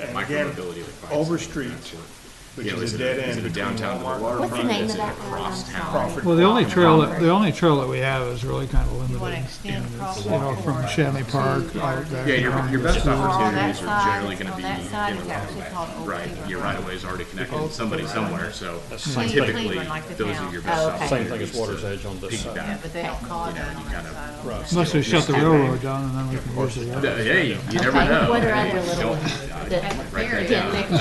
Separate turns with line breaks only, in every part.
and again,
micromobility requirements.
Overstreet, which
You know,
is
is it
a dead
a- is
end
it a
between
downtown to the
Walmart and
waterfront?
What's the name of
Is it
that road? I'm
across town?
sorry.
Well, the only trail, that-
Crawford.
the only trail that we have is really kind of
You wanna
limited,
extend across
you know, from
Walmart
Shanley Park
to-
out there.
Yeah, your, your best
Or on that
opportunities are
side,
generally gonna
on
be,
that side is actually called Old
right,
Cleveland
your
Road.
right of way is already connected to somebody somewhere, so
Same thing.
typically,
Cleveland, like the
those
town.
are your best
Oh, okay.
opportunities.
Same
thing as
to
Water's Edge on this side.
piggyback.
Yeah, but they don't call it that on that side. I don't
Unless they shut the railroad down and then we can use the
Uh,
road.
Hey, you never
Okay,
know.
what are
Hey,
other
you
little
don't-
ones
uh,
that-
think. There it
Yeah.
is.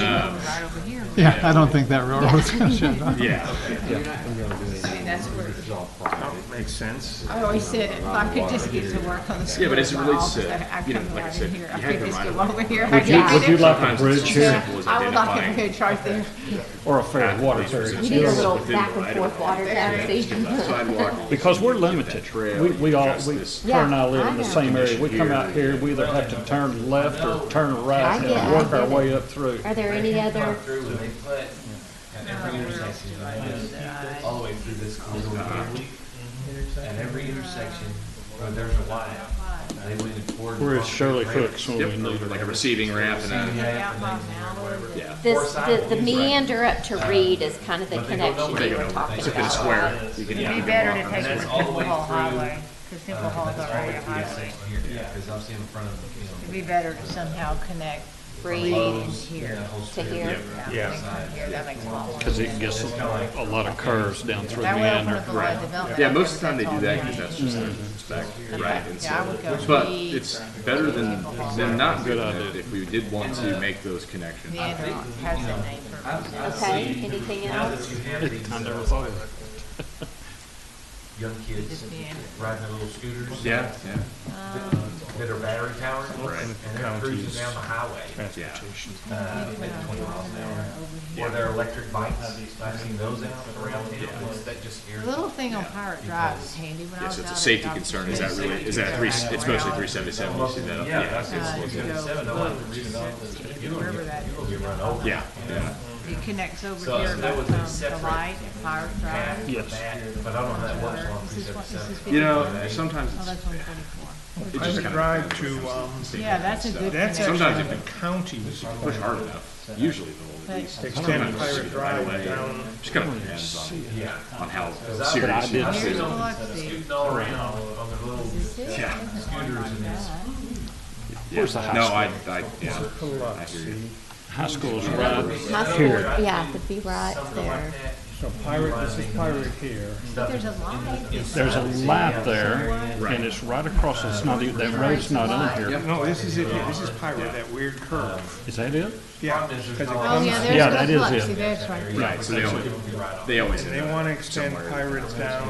Right over here.
Yeah, I don't think that railroad's gonna shut down.
Yeah,
I mean, that's where,
That Makes sense.
I always said, if I could just get to work on the school.
Yeah, but as it
bus,
relates to,
I- I
you know,
come
like I
right in
said,
here.
you
I
have
could
the
just
right
go
of-
over here. I
Would you,
could
would you
either-
like a bridge here?
simple as
I would like a
identifying-
bridge right there.
Or a ferry, water ferry?
You need a
Yes.
little
Within the
back and
right of
forth water taxi.
sidewalk.
Because we're limited. We, we all, we, her and I live in the same area. We come out here, we either have to turn left or turn
I
right
get it, I
and work
get
our
it.
way up through.
Are there any other,
Through when they put at every intersection, right, all the way through this corridor here. At every Mm-hmm. intersection, where there's a Y, they went and poured.
Where is Shirley Hooks when we need
Yep, like a
her?
receiving ramp and a,
Yeah, and
yeah.
this, the, the meander up
Um,
to Reed is kind of the connection
They
you
go
were
over,
talking
it's a bit of
about.
square. You can- you
It'd
can
be better
walk
to
on
take
the
it
That's
to
square.
all the
Temple
way
Hall
through-
Highway, because Temple Hall's
that's all
already
the way
a
through the
highway.
section here, because I'm seeing in front of, you know.
It'd be better to somehow connect Reed and
Reed
here.
that whole
to
strip.
here.
Yeah. Here, that makes a lot more
Cause
sense.
it gets a a lot of curves down through
That would open
Meander.
up a lot of development.
Yeah, most of the time they do that because that's just their spec, right? And
Mm-hmm. Yeah, I would go
so- But
Reed,
it's better than, than not doing
Good
that
idea.
if we did want to make those connections.
Meander, how's that name for Um, it?
Okay, anything
Now that
else?
you have these,
I never
uh,
thought of
young kids
Just Meander.
riding their little scooters.
Yeah, yeah,
That are battery powered, and they're cruising down the highway.
yeah.
uh, maybe 20 miles an hour. Or their electric bikes, I've seen those out around town, that just scares
The
me.
Little thing on Pirate Drive is handy when I
Yeah,
was
so
out.
it's a
at
safety
Dr.
concern. Is that
Smith's,
really, is that three, it's mostly three seventy-seven, you see that up?
Yeah, that's,
uh,
it's,
you go up
it's,
to Wherever that is.
you run over.
Yeah, yeah.
It connects over
So,
here
so that
by um,
was a
the
separate
light at Pirate
Bad,
Drive.
Yes.
bad, But I don't know how that works on
This is what, this is
377.
You
fifty.
know, sometimes
Oh,
it's,
that's one
it
twenty-four.
I
just
would
kind
drive
of.
to, um,
Yeah, that's a good
that's
connection.
Sometimes
actually
if
the county's
Push hard enough, usually they'll at least.
extended pirate drive down.
Just kind of depends on,
Yeah.
on how
But I
serious it
didn't
is.
see
Here's
it.
Biloxi.
Scooting all around on their little
Yeah.
scooters and it's.
Where's the
No,
high
I,
school?
I, yeah, I hear you.
High school's right
High school,
here.
yeah, would be right
Something like
there.
that.
So pirate, this is pirate here.
There's a light.
There's a light there and it's right across, it's not, even- that road's not on here.
No, this is it here. This is pirate, that weird curve.
Is that it?
Yeah, because it
Oh,
comes,
yeah,
Yeah,
there's
that is it.
Biloxi, that's right.
Right, so they always, they always,
they
end up-
want to extend pirates down,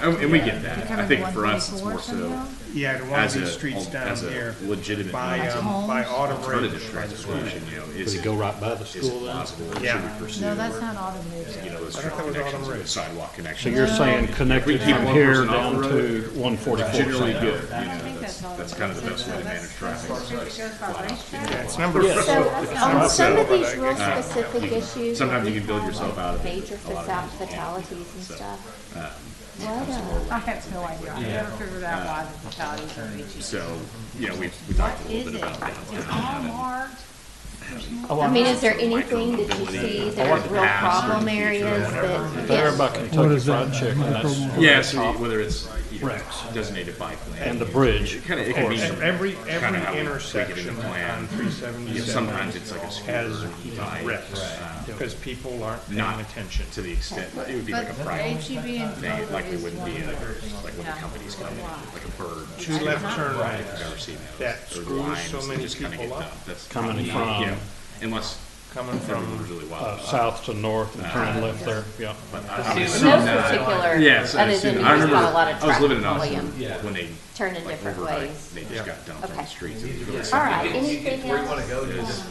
and and we get that. I
Coming
think for us, it's
124
more so
somehow?
yeah, to want
as
these
a, um,
streets down
as
here
a legitimate
by, um, by auto
alternative
bridge.
transportation, you know, is
Does it
it
go right by the
is
school
it
then?
possible, should
Yeah.
we pursue,
No,
you
that's not automated.
know, those
I thought it was
connections,
automated.
the sidewalk
So
connections?
you're saying connected
keep
from
one
here
person off
down
the
to one forty-four?
Generally good, you know,
think
that's,
that's all
that's kind of the best way to manage traffic.
It's number four.
So on some of these real specific issues,
Sometimes you
we
can build yourself out of it.
major fatal- fatalities and stuff.
um,
What, uh,
I have no idea. I never figured out why the fatalities are each.
So, you know, we, we talked a
Is
little bit
it?
about downtown.
It's all marked.
I mean, is there anything that you see that are real problem areas that?
There by Kentucky Fried Chicken, that's
Yeah, so whether it's, you know,
Rex.
designated bike lane.
And the bridge,
It kind of, it can be
And
some-
Every,
kinda how we-
every
we get
intersection
into
on
plan.
three
you know,
seventy-seven
sometimes it's like a
has
scooter bike,
wrecks, because people aren't paying
Not-
attention.
to the extent, it would be like
But
a
the
private
HEB E and
thing, it
Kroger
likely
is
wouldn't
one.
be a,
of
like when the
Yeah.
companies come in, like a bird.
Two left turn lanes
I've seen those.
that
Those
screws
lines
so
that
many
just kinda
people
get
up.
done. That's
Coming
probably, you know,
from-
Unless
coming
everyone
from,
really
uh,
wild.
south to north and turning left there, yeah.
No particular,
Yeah, so
other
as soon-
than
I
there's
remember,
not a lot of
I was living in
traffic
Austin
volume,
when they,
turn in
like,
different
overnight,
ways.
they just got dumped on
Okay.
the streets. It was really
All
sad.
right, anything else?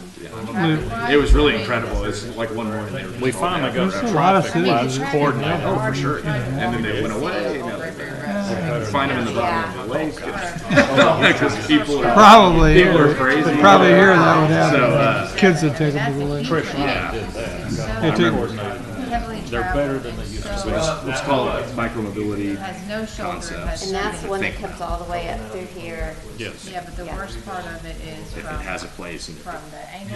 It was really incredible. It's like one morning. they were just
We
all down
finally got
there.
lot of
traffic lights
cities.
coordinated.
Oh, for sure. And then they went away. you know, they- Find them in the bottom of the lake. Because people are.
Probably,
People are
here-
crazy.
probably here that would
So,
happen.
uh,
Kids would take them to the lake. They took-
They're better than they used to.
it's, it's called uh, micromobility.
Has no shoulder,
Concept.
has
And that's the one that
Think
comes all the way up through here.
Yes.
Yeah, but the worst part of it is
It
from,
has a place and it
from the angle